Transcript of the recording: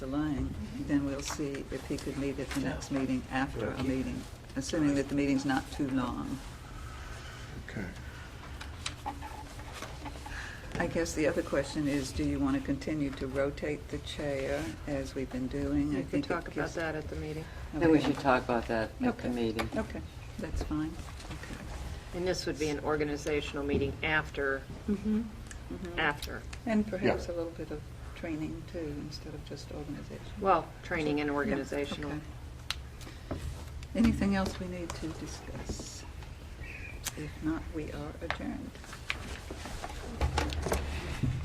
the line, then we'll see if he could meet at the next meeting after a meeting, assuming that the meeting's not too long. Okay. I guess the other question is, do you want to continue to rotate the chair as we've been doing? I We can think it talk about gives- that at the meeting. Then we Okay. should talk about that at Okay. the meeting. Okay, that's fine. Okay. And this would be an organizational meeting after, after, And perhaps a little bit of training too, instead of just organization. well, training and Yeah, organizational. okay. Anything else we need to discuss? If not, we are adjourned.